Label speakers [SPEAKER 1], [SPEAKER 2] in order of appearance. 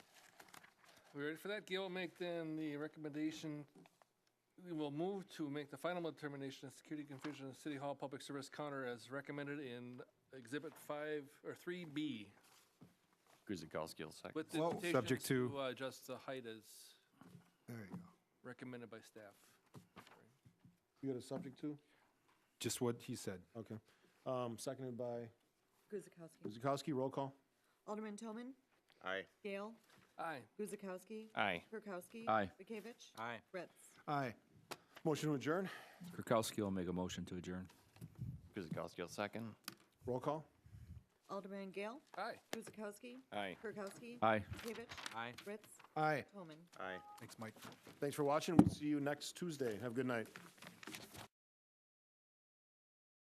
[SPEAKER 1] We ready for that? Gail will make then the recommendation. We will move to make the final determination of security confusion in City Hall Public Service Counter as recommended in Exhibit 5, or 3B,
[SPEAKER 2] Guzekowski will second.
[SPEAKER 1] with the
[SPEAKER 3] Well,
[SPEAKER 1] invitations
[SPEAKER 3] subject to-
[SPEAKER 1] uh, adjust the height as
[SPEAKER 3] There you go.
[SPEAKER 1] recommended by staff.
[SPEAKER 4] You got a subject to?
[SPEAKER 3] Just what he said.
[SPEAKER 4] Okay. Um, seconded by
[SPEAKER 5] Guzekowski.
[SPEAKER 4] Guzekowski, roll call.
[SPEAKER 5] Alderman Toman.
[SPEAKER 6] Aye.
[SPEAKER 5] Gale.
[SPEAKER 1] Aye.
[SPEAKER 5] Guzekowski.
[SPEAKER 2] Aye.
[SPEAKER 5] Kirkowski.
[SPEAKER 7] Aye.
[SPEAKER 5] Bekavich.
[SPEAKER 6] Aye.
[SPEAKER 5] Ritz.
[SPEAKER 3] Aye.
[SPEAKER 4] Motion to adjourn,
[SPEAKER 7] Kirkowski will make a motion to adjourn.
[SPEAKER 2] Guzekowski will second.
[SPEAKER 4] roll call.
[SPEAKER 5] Alderman Gale.
[SPEAKER 1] Aye.
[SPEAKER 5] Guzekowski.
[SPEAKER 2] Aye.
[SPEAKER 5] Kirkowski.
[SPEAKER 7] Aye.
[SPEAKER 5] Bekavich.
[SPEAKER 6] Aye.
[SPEAKER 5] Ritz.
[SPEAKER 4] Aye.
[SPEAKER 5] Toman.
[SPEAKER 6] Aye.
[SPEAKER 3] Thanks, Mike.
[SPEAKER 4] Thanks for watching. We'll see you next Tuesday. Have a good night.